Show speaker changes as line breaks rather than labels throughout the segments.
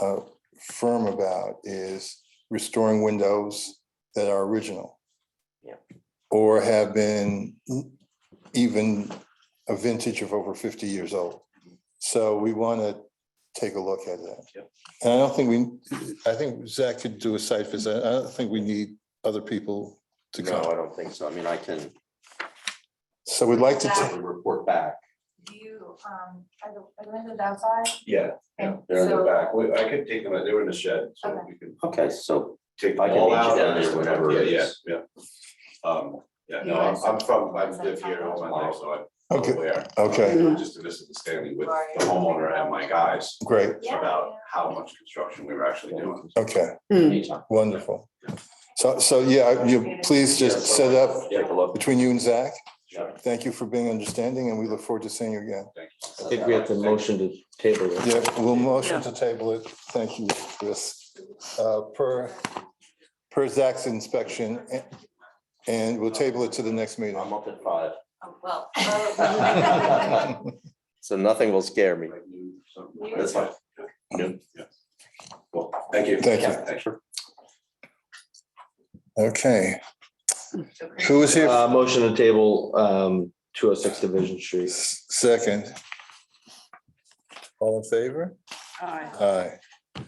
uh, firm about is restoring windows that are original.
Yeah.
Or have been even a vintage of over fifty years old. So we want to take a look at that.
Yep.
And I don't think we, I think Zach could do a site visit. I don't think we need other people to
No,
come.
I don't think so. I mean, I can
So we'd like to, ta-
certainly report back.
Do you, um, are the, are the windows outside?
Yeah, yeah,
Okay,
they're in the
so-
back. We- I could take them, out. they were in the shed, so
Okay.
we could
Okay, so
take
I
them
can
all
meet you
out.
down
and
there
just-
whenever it
Yeah,
is.
yeah, yeah. Um, yeah,
You
no,
guys-
I'm I'm from, I
Is that
live here all my life, so I'm
okay,
aware.
okay,
We were Just to visit the Stanley with the homeowner and my guys
great,
Yeah,
about
yeah.
how much construction we were actually doing.
okay,
anytime.
wonderful. So, so, yeah, you, please just set up
Yeah, below.
between you and Zach.
Sure.
Thank you for being understanding and we look forward to seeing you again.
I think we have to motion to table it.
Yeah, we'll motion to table it. Thank you, Chris. Uh, Per, per Zach's inspection, a- and we'll table it to the next meeting.
I'm up at five,
Oh, well.
So nothing will scare me.
Like new, something.
that's fine.
Cool. Thank you.
Thank you.
Yeah, Thanks for
Okay, who is here?
Uh, motion to table, um, two oh six Division Street.
S- Second. All in favor?
Aye.
Aye.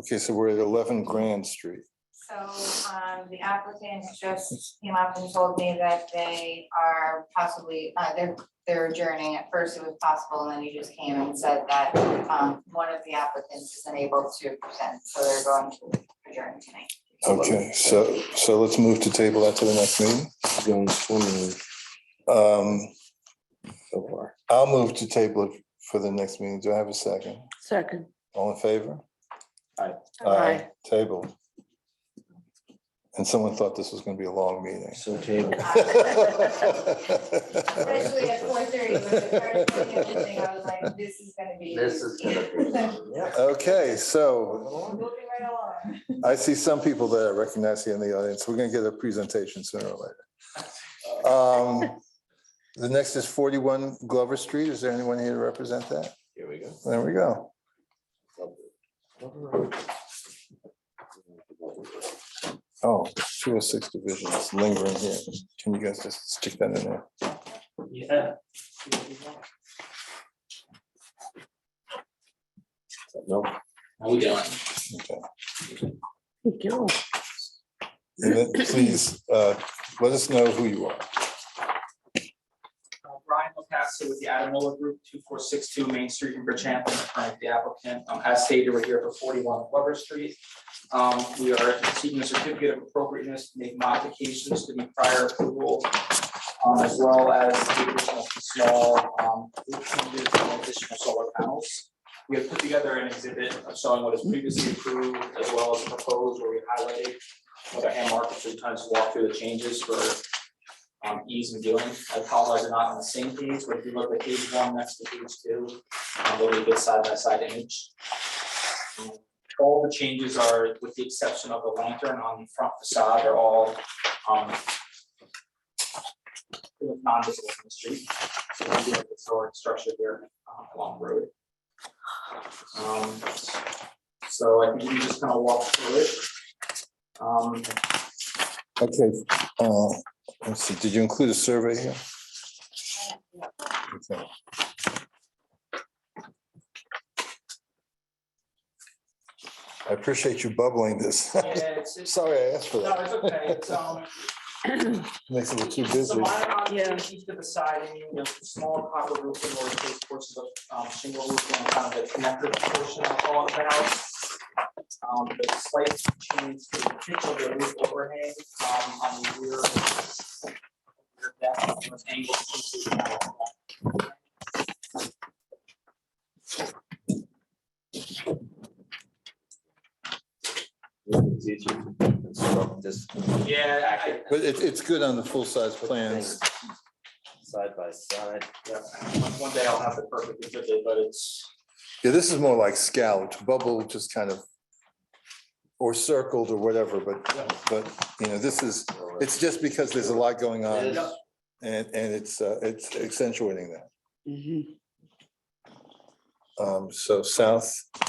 Okay, so we're at eleven Grand Street.
So, um, the applicant just came up and told me that they are possibly, uh, they're, they're adjourning. At first it was possible, and then you just came and said that, um, one of the applicants is unable to present, so they're going to adjourn tonight.
Okay, so, so let's move to table that to the next meeting.
Going swimming
Um,
so far.
I'll move to table it for the next meeting. Do I have a second?
Second.
All in favor?
Aye.
Aye.
Table. And someone thought this was gonna be a long meeting.
So table.
Especially at four thirty, when the first thing in the thing, I was like, this is gonna be.
This is gonna be.
Okay, so
Moving right along.
I see some people that I recognize here in the audience. We're gonna get a presentation sooner or later. Um, The next is forty-one Glover Street. Is there anyone here to represent that?
Here we go.
There we go. Oh, 206 division is lingering here. Can you guys just stick that in there?
Yeah.
Nope.
How we doing?
Okay.
Thank you.
And then please, uh, let us know who you are.
Uh, Brian LaPasta with the Adamola Group, two four six two Main Street in Bridgehampton, currently the applicant. Um, As stated, we're here for forty-one Glover Street. Um, We are seeking a certificate of appropriateness, to make modifications to the prior approval, um, as well as the addition of the small um, roof changes and additional solar panels. We have put together an exhibit of showing what is previously approved as well as proposed, where we highlighted what our hand markers and times to walk through the changes for um, ease in doing. I apologize, they're not on the same page, but if you look at page one next to page two, um, there'll be a good side by side image. Um, All the changes are, with the exception of the lantern on the front facade, are all, um, non-visible from the street, so we do have a historic structure here, um, along the road. Um, so I think we can just kind of walk through it. Um,
Okay, uh, let's see, did you include a survey here? Okay. I appreciate you bubbling this.
yeah, it's, it's,
Sorry I asked for
no, it's okay, it's,
that.
um,
Makes it look too
So
busy.
minor
Yeah.
modifications to the siding, you know, small copper roofing or those portions of um, shingle roofing, kind of the connected portion of all of the house. Um, the slight change to the pitch of the roof overhang, um, on the rear. rear deck with angled pieces of metal.
It's easier to construct This
Yeah, I,
But it, it's good on the full-size plans.
side by side.
yeah, one, one day I'll have the perfect exhibit, but it's,
Yeah, this is more like scalloped, bubble just kind of, or circled or whatever, but, but, you know, this is, it's just because there's a lot going on.
Yeah.
And, and it's, uh, it's accentuating that. Um, so south